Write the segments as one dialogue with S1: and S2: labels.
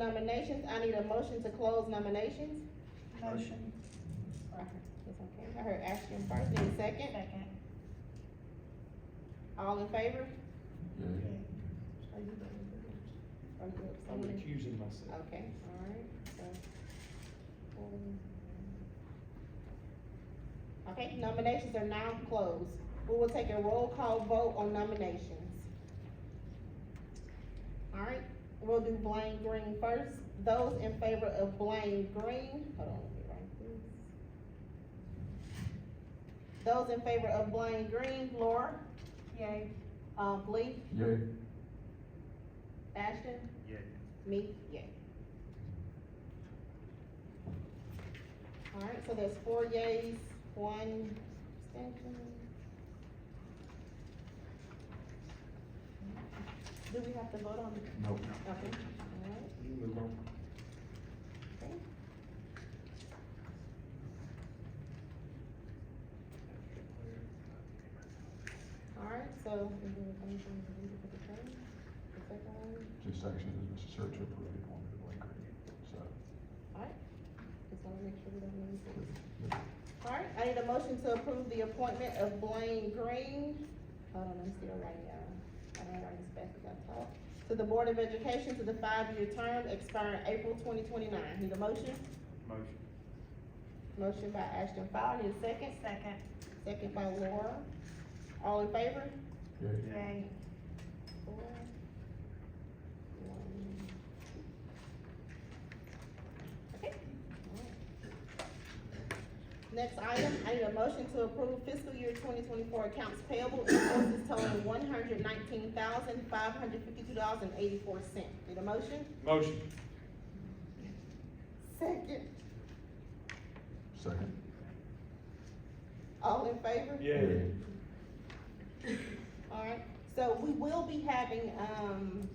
S1: nominations, I need a motion to close nominations.
S2: Motion.
S1: It's okay, I heard Ashton first, need a second,
S3: Second.
S1: all in favor?
S4: Yay.
S1: Or you have
S2: I'm
S1: someone?
S2: recusing myself.
S1: Okay, alright, so. um, Okay, nominations are now closed. We will take a roll call vote on nominations. Alright, we'll do Blaine Green first. Those in favor of Blaine Green, hold on, let me write this. Those in favor of Blaine Green, Laura,
S3: Yay.
S1: uh, Lee,
S4: Yay.
S1: Ashton,
S2: Yeah.
S1: Me, yay. Alright, so there's four yays, one abstention. Do we have to vote on it?
S4: No.
S1: Okay, alright,
S2: You move on.
S1: okay. Alright, so. we do the thing from the leader for the term, the second one.
S4: Just action is necessary to approve it on the blank green. So,
S1: Just wanna make sure we don't lose it.
S4: Yeah.
S1: Alright, I need a motion to approve the appointment of Blaine Green, hold on, I'm still writing, uh, I don't write as fast as I talk. To the Board of Education to the five-year term expiring April twenty twenty-nine, need a motion?
S2: Motion.
S1: Motion by Ashton Fowler, need a second,
S3: Second.
S1: second by Laura, all in favor?
S4: yay.
S3: Yay.
S1: Four. One. Okay. Next item, I need a motion to approve fiscal year twenty twenty-four accounts payable invoices totaling one hundred nineteen thousand, five hundred fifty-two dollars and eighty-four cents. Need a motion?
S2: Motion.
S1: Second.
S4: Second.
S1: All in favor?
S2: Yeah.
S1: Alright, so we will be having, um,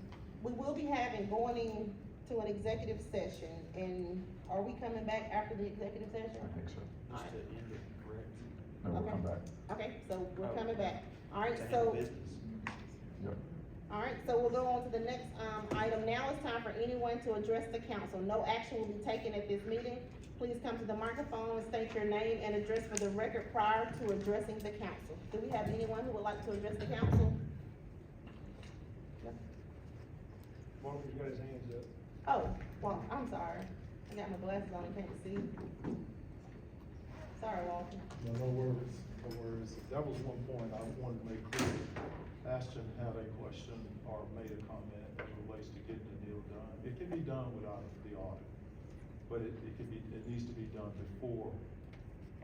S1: we will be having, going in to an executive session, and are we coming back after the executive
S4: I
S1: session?
S4: think so.
S2: Just to end it, correct?
S4: No, we'll
S1: Okay.
S4: come back.
S1: Okay, so we're
S2: Oh.
S1: coming back, alright,
S2: To handle
S1: so,
S2: business.
S1: alright, so we'll go on to the next, um, item, now it's time for anyone to address the council, no action will be taken at this meeting. Please come to the microphone and state your name and address for the record prior to addressing the council. Do we have anyone who would like to address the council?
S2: Marvin's got his hands up.
S1: Oh, well, I'm sorry. I got my glasses on, I can't see. Sorry, Walter.
S5: No, no worries, no worries. That was one point I wanted to make clear. Ashton had a question or made a comment as relates to getting the deal done. It can be done without the audit, but it, it can be, it needs to be done before,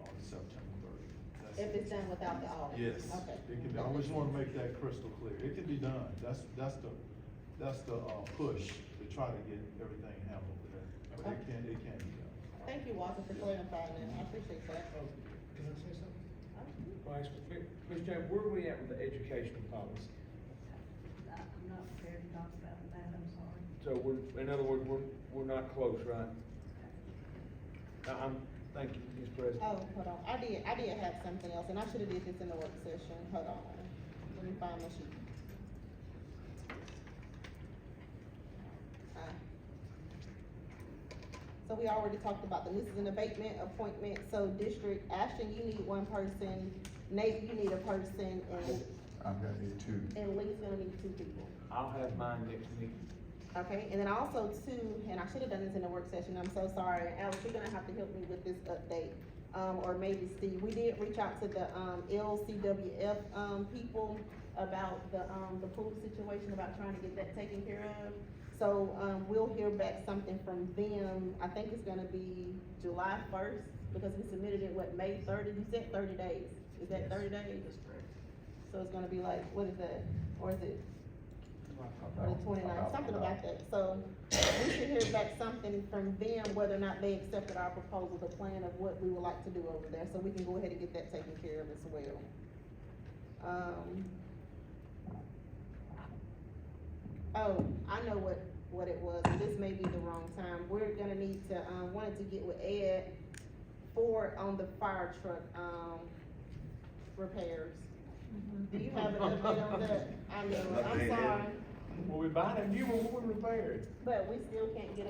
S5: uh, September thirty.
S1: If it's done without the audit?
S5: Yes.
S1: Okay.
S5: It can, be- I just wanna make that crystal clear. It can be done. That's, that's the, that's the, uh, push to try to get everything handled there. But it can, it can be done.
S1: Thank you, Walter, for clarifying that. I appreciate that.
S6: Oh, Can I say something? Vice, Ms. Jones, where are we at with the educational policy?
S7: I'm not prepared to talk about that, I'm sorry.
S6: So we're, in other words, we're, we're not close, right? I- I'm, thank you, Ms. President.
S1: Oh, hold on. I did, I did have something else, and I should have did this in the work session. Hold on. Let me find my sheet. Uh, So we already talked about them. This is an abatement appointment, so District Ashton, you need one person, Nate, you need a person, and
S4: I'm gonna need two.
S1: And Lee's gonna need two people,
S6: I'll have mine next meeting.
S1: okay? And then also two, and I should have done this in the work session, I'm so sorry, Alex, you're gonna have to help me with this update. Um, or maybe Steve, we did reach out to the, um, LCWF, um, people about the, um, the pool situation, about trying to get that taken care of. So, um, we'll hear back something from them, I think it's gonna be July first, because we submitted it, what, May thirty, you said thirty days, is that thirty days?
S7: That's correct.
S1: So it's gonna be like, what is that, or is it or
S4: About-
S1: the twenty-nine,
S4: about-
S1: something about that, so we should hear back something from them, whether or not they accepted our proposal, the plan of what we would like to do over there, so we can go ahead and get that taken care of as well. Um. Oh, I know what, what it was, and this may be the wrong time, we're gonna need to, um, wanted to get with Ed Ford on the fire truck, um, repairs. Do you have an update on that? I know, I'm sorry.
S6: Well, we buying a new one, we're repairing.
S1: But we still can't get